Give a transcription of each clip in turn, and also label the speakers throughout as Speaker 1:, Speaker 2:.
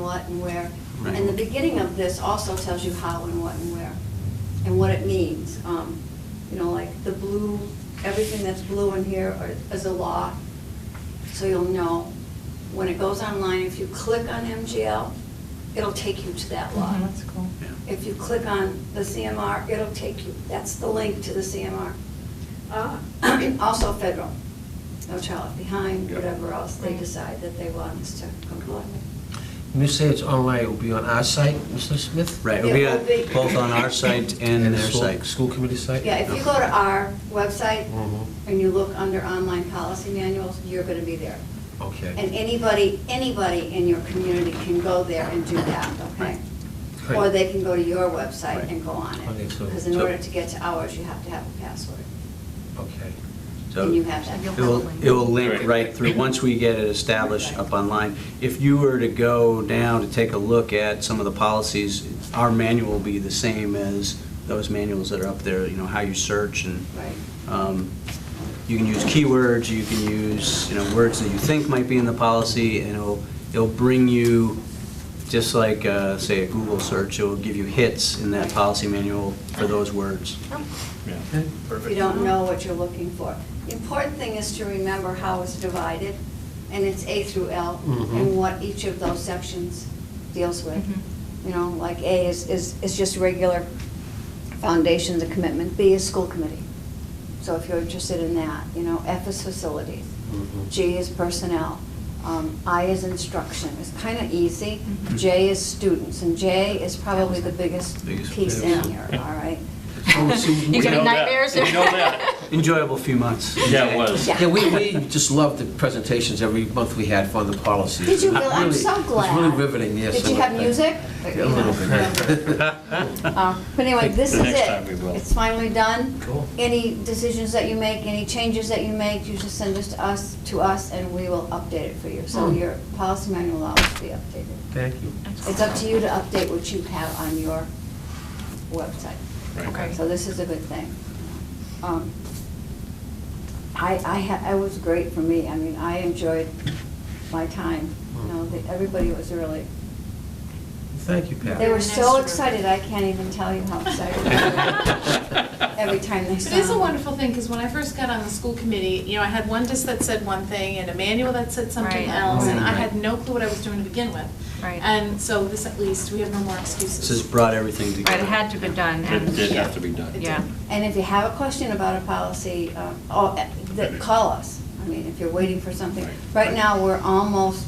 Speaker 1: what and where.
Speaker 2: Right.
Speaker 1: And the beginning of this also tells you how and what and where, and what it means. Um, You know, like the blue, everything that's blue in here are- is a law, so you'll know. When it goes online, if you click on MGL, it'll take you to that law.
Speaker 3: Mhm, That's cool.
Speaker 2: Yeah.
Speaker 1: If you click on the CMR, it'll take you, that's the link to the CMR.
Speaker 4: Uh,
Speaker 5: Ah,
Speaker 1: Also federal, no child left behind,
Speaker 2: Yeah.
Speaker 1: whatever else they
Speaker 3: Right.
Speaker 1: decide that they want us to comply with.
Speaker 6: When you say it's online, it will be on our site, Mr. Smith?
Speaker 2: Right,
Speaker 1: It
Speaker 2: we
Speaker 1: will
Speaker 2: are
Speaker 1: be.
Speaker 2: both on our site and
Speaker 6: the
Speaker 2: their
Speaker 6: school-
Speaker 2: site.
Speaker 6: School committee site?
Speaker 1: Yeah, if you go to our website
Speaker 6: Mhm.
Speaker 1: and you look under online policy manuals, you're going to be there. And
Speaker 6: Okay.
Speaker 1: anybody, anybody in your community can go there and do that, okay?
Speaker 6: Right.
Speaker 1: Or they can go to your website
Speaker 2: Right.
Speaker 1: and go on
Speaker 6: Okay,
Speaker 1: it.
Speaker 6: so-
Speaker 1: Because in
Speaker 2: So-
Speaker 1: order to get to ours, you have to have a password.
Speaker 6: Okay.
Speaker 2: So
Speaker 1: And you have that.
Speaker 2: It will, it will link
Speaker 7: Right.
Speaker 2: right through, once we get it established up online. If you were to go now to take a look at some of the policies, our manual will be the same as those manuals that are up there, you know, how you search and
Speaker 1: Right.
Speaker 2: um, you can use keywords, you can use, you know, words that you think might be in the policy, and it'll, it'll bring you, just like, uh, say, a Google search, it'll give you hits in that policy manual for those words.
Speaker 7: Yeah.
Speaker 1: if you don't know what you're looking for. The important thing is to remember how it's divided, and it's A through L,
Speaker 6: Mhm.
Speaker 1: and what each of those sections deals with.
Speaker 3: Mhm.
Speaker 1: You know, like A is, is, is just regular foundations and commitment, B is school committee. So if you're interested in that, you know, F is facilities,
Speaker 6: Mhm.
Speaker 1: G is personnel, um, I is instruction, it's kind of easy.
Speaker 3: Mhm.
Speaker 1: J is students, and J is probably the biggest
Speaker 2: Biggest
Speaker 1: piece in
Speaker 6: piece.
Speaker 1: here, all right?
Speaker 3: You
Speaker 7: Oh, We know
Speaker 3: getting
Speaker 7: that.
Speaker 3: nightmares?
Speaker 7: We know that.
Speaker 2: Enjoyable few months.
Speaker 7: Yeah, it was.
Speaker 1: Yeah.
Speaker 6: Yeah, we, we just loved the presentations every month we had on the policies.
Speaker 1: Did you
Speaker 6: It was
Speaker 1: really? I'm
Speaker 6: really-
Speaker 1: so glad.
Speaker 6: It was really riveting, yes.
Speaker 1: Did you have music?
Speaker 6: Yeah, a little bit.
Speaker 1: Uh, But anyway, this is
Speaker 7: The
Speaker 1: it.
Speaker 7: next time we will.
Speaker 1: It's finally done.
Speaker 6: Cool.
Speaker 1: Any decisions that you make, any changes that you make, you just send this to us, to us, and we will update it for you. So
Speaker 6: Hmm.
Speaker 1: your policy manual will always be updated.
Speaker 6: Thank you.
Speaker 1: It's up to you to update what you have on your website.
Speaker 7: Right.
Speaker 3: Okay.
Speaker 1: So this is a good thing. Um, I, I, ha- it was great for me. I mean, I enjoyed my time. You know, the- everybody was really,
Speaker 6: Thank you, Pat.
Speaker 1: they were
Speaker 3: Nice
Speaker 1: so
Speaker 3: work.
Speaker 1: excited, I can't even tell you how excited they were. Every time they saw
Speaker 4: It is a
Speaker 1: them.
Speaker 4: wonderful thing, because when I first got on the school committee, you know, I had one disc that said one thing and a manual that said something
Speaker 3: Right.
Speaker 4: else, and I
Speaker 2: Right.
Speaker 4: had no clue what I was doing to begin with.
Speaker 3: Right.
Speaker 4: And so this, at least, we have no more excuses.
Speaker 2: This has brought everything
Speaker 3: Right,
Speaker 2: together.
Speaker 3: it had to be done.
Speaker 7: It
Speaker 3: and-
Speaker 7: did have to be done.
Speaker 3: Yeah.
Speaker 1: And if you have a question about a policy, uh, oh, eh, th- call us. I mean, if you're waiting for something.
Speaker 7: Right.
Speaker 1: Right now, we're almost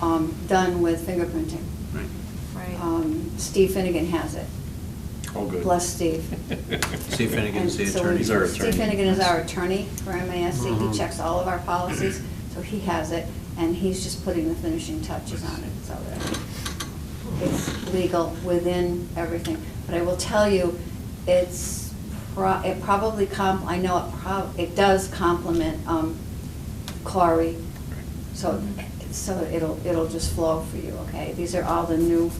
Speaker 1: um, done with fingerprinting.
Speaker 2: Right.
Speaker 3: Right.
Speaker 1: Um, Steve Finnegan has it.
Speaker 7: All good.
Speaker 1: Bless Steve.
Speaker 2: Steve Finnegan's the
Speaker 1: And so we-
Speaker 2: attorney.
Speaker 7: He's our attorney.
Speaker 1: Steve Finnegan is our attorney for MASC. He
Speaker 6: Mhm.
Speaker 1: checks all of our policies, so he has it, and he's just putting the finishing touches on it, so uh, that it's legal within everything. But I will tell you, it's, pro- it probably comp, I know it prob, it does complement um, Clary, so, so it'll, it'll just flow for you, okay? These are all the new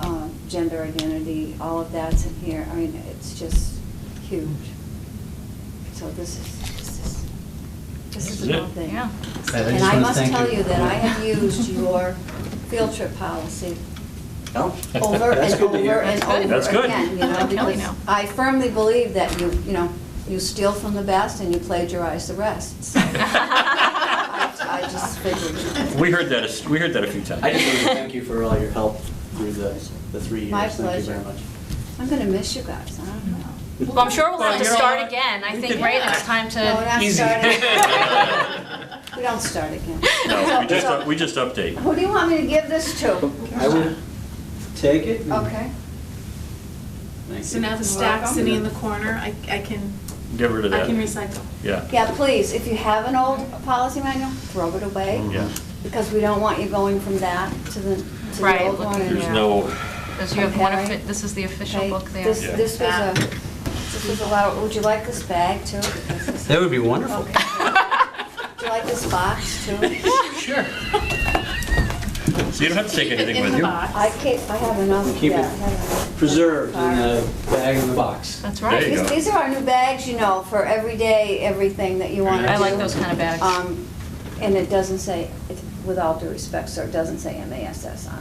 Speaker 1: um, gender identity, all of that's in here. I mean, it's just huge. So this is, this is, this is
Speaker 7: This is
Speaker 1: the whole
Speaker 7: it.
Speaker 1: thing.
Speaker 3: Yeah.
Speaker 2: I
Speaker 1: And
Speaker 2: just
Speaker 1: I
Speaker 2: wanna
Speaker 1: must
Speaker 2: thank
Speaker 1: tell
Speaker 2: you.
Speaker 1: you that I have used your field trip policy
Speaker 2: Oh,
Speaker 1: over
Speaker 2: that's
Speaker 1: and
Speaker 2: good to hear.
Speaker 1: over and
Speaker 3: That's good.
Speaker 1: over
Speaker 7: That's good.
Speaker 1: again, you know,
Speaker 3: I'm telling
Speaker 1: because
Speaker 3: you.
Speaker 1: I firmly believe that you, you know, you steal from the best and you plagiarize the rest. So I I just figured.
Speaker 7: We heard that, a- we heard that a few times.
Speaker 2: I just want to thank you for all your help through the, the three years.
Speaker 1: My
Speaker 2: Thank you very
Speaker 1: pleasure.
Speaker 2: much.
Speaker 1: I'm gonna miss you guys, I don't know.
Speaker 3: Well, I'm sure we'll have to
Speaker 7: Well, you know
Speaker 3: start
Speaker 7: what?
Speaker 3: again. I
Speaker 7: We
Speaker 3: think,
Speaker 7: could-
Speaker 3: right, it's time
Speaker 1: No, we're
Speaker 3: to,
Speaker 1: not
Speaker 7: Easy.
Speaker 1: starting. We don't start again.
Speaker 7: No, we
Speaker 1: So-
Speaker 7: just, up- we just update.
Speaker 1: so Who do you want me to give this to?
Speaker 2: I will take it. and-
Speaker 1: Okay.
Speaker 2: Thank you.
Speaker 4: So now the stack
Speaker 1: Welcome.
Speaker 4: sitting in the corner, I, I can,
Speaker 7: Get
Speaker 4: I
Speaker 7: rid of that.
Speaker 4: can recycle.
Speaker 7: Yeah,
Speaker 1: Yeah, please, if you have an old policy manual, throw it away,
Speaker 7: yeah.
Speaker 1: because we don't want you going from that to the, to the
Speaker 3: Right,
Speaker 1: old one.
Speaker 3: looking
Speaker 1: and-
Speaker 7: There's
Speaker 3: Yeah.
Speaker 7: no,
Speaker 3: because you have one,
Speaker 1: Okay.
Speaker 3: offi- this is the official
Speaker 1: Okay,
Speaker 3: book there.
Speaker 1: This,
Speaker 7: Yeah.
Speaker 1: this was a, this was a lot, would you like this bag too? Because this-
Speaker 2: That would be wonderful.
Speaker 1: Okay. Would you like this box too?
Speaker 7: sure. So you don't have to take
Speaker 4: Keep it
Speaker 7: anything
Speaker 4: in
Speaker 7: with
Speaker 4: the
Speaker 7: you.
Speaker 4: box.
Speaker 1: I can't, I have enough,
Speaker 2: Keep
Speaker 1: yeah.
Speaker 2: it
Speaker 1: I have enough.
Speaker 2: Preserved in a bag in the box.
Speaker 3: That's right.
Speaker 7: There you
Speaker 1: These,
Speaker 7: go.
Speaker 1: these are our new bags, you know, for every day, everything that you want to do.
Speaker 3: I like those kind of bags.
Speaker 1: Um, And it doesn't say, it- with all due respect, sir, it doesn't say MASS on it.